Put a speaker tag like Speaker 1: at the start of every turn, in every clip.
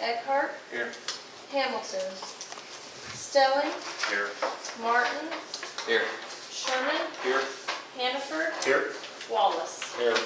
Speaker 1: Eckhart.
Speaker 2: Here.
Speaker 1: Hamilton. Stelling.
Speaker 2: Here.
Speaker 1: Martin.
Speaker 2: Here.
Speaker 1: Sherman.
Speaker 2: Here.
Speaker 1: Hannaford.
Speaker 2: Here.
Speaker 1: Wallace.
Speaker 3: Here.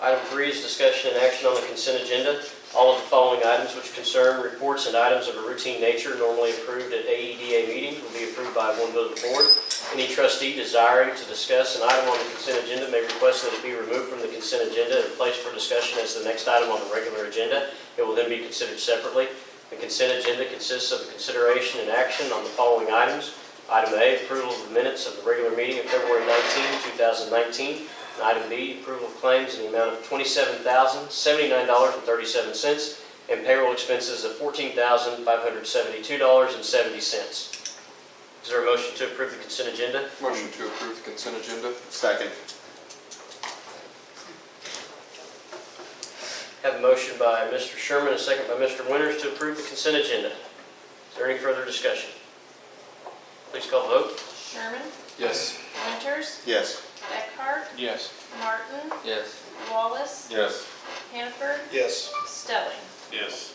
Speaker 3: Item three is discussion and action on the consent agenda. All of the following items which concern reports and items of a routine nature normally approved at AEDA meetings will be approved by one vote of the board. Any trustee desiring to discuss an item on the consent agenda may request that it be removed from the consent agenda and placed for discussion as the next item on the regular agenda. It will then be considered separately. The consent agenda consists of the consideration and action on the following items. Item A, approval of the minutes of the regular meeting of February 19, 2019. And Item B, approval of claims in the amount of $27,079.37 and payroll expenses of $14,572.70. Is there a motion to approve the consent agenda?
Speaker 2: Motion to approve the consent agenda. Second.
Speaker 3: Have a motion by Mr. Sherman, a second by Mr. Winters to approve the consent agenda. Is there any further discussion? Please call the vote.
Speaker 1: Sherman.
Speaker 2: Yes.
Speaker 1: Winters.
Speaker 2: Yes.
Speaker 1: Eckhart.
Speaker 2: Yes.
Speaker 1: Martin.
Speaker 2: Yes.
Speaker 1: Wallace.
Speaker 2: Yes.
Speaker 1: Hannaford.
Speaker 2: Yes.
Speaker 1: Stelling.
Speaker 2: Yes.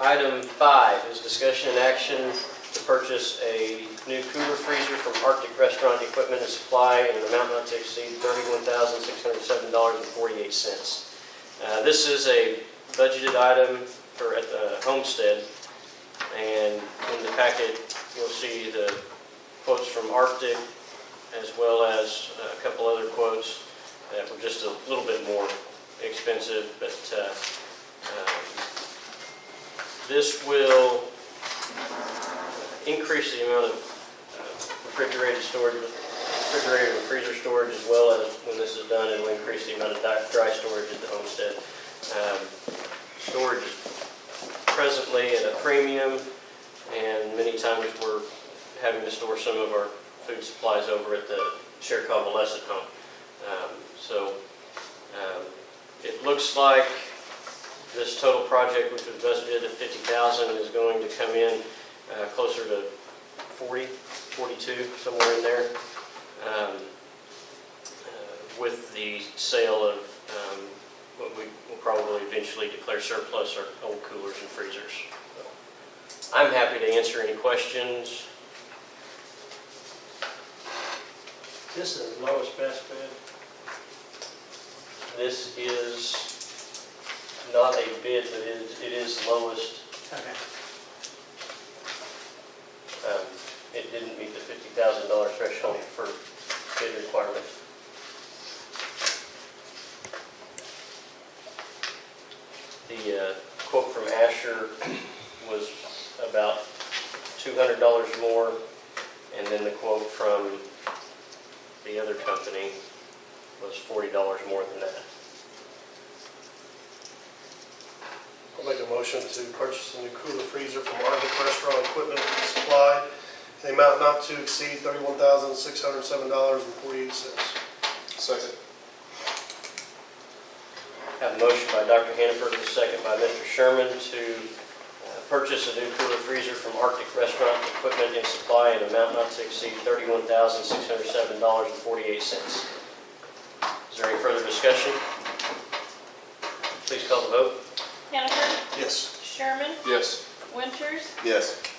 Speaker 3: Item five is discussion and action to purchase a new cooler freezer from Arctic Restaurant Equipment and Supply in an amount not to exceed $31,607.48. Uh, This is a budgeted item for, at the homestead, and in the packet, you'll see the quotes from Arctic, as well as a couple other quotes that were just a little bit more expensive, but uh, um, this will increase the amount of uh, refrigerated storage, refrigerator and freezer storage, as well as when this is done, it'll increase the amount of di- dry storage at the homestead. Um, Storage is presently at a premium, and many times we're having to store some of our food supplies over at the shared convalescent home. Um, So um, it looks like this total project, which was budgeted at 50,000, is going to come in uh, closer to 40, 42, somewhere in there, um, uh, with the sale of um, what we will probably eventually declare surplus, our old coolers and freezers. I'm happy to answer any questions.
Speaker 4: This is the lowest best bid.
Speaker 3: This is not a bid, but it is- it is lowest
Speaker 4: Okay.
Speaker 3: um, it didn't meet the $50,000 threshold for bid requirement. The uh, quote from Asher was about $200 more, and then the quote from the other company was $40 more than that.
Speaker 5: I'll make a motion to purchase a new cooler freezer from Arctic Restaurant Equipment and Supply in the amount not to exceed thirty-one thousand, six hundred and seven dollars and forty-eight cents.
Speaker 2: Second.
Speaker 3: Have a motion by Dr. Hannaford, and a second by Mr. Sherman to uh, purchase a new cooler freezer from Arctic Restaurant Equipment and Supply in an amount not to exceed $31,607.48. Is there any further discussion? Please call the vote.
Speaker 1: Hannaford.
Speaker 5: Yes.
Speaker 1: Sherman.
Speaker 2: Yes.
Speaker 1: Winters.
Speaker 2: Yes.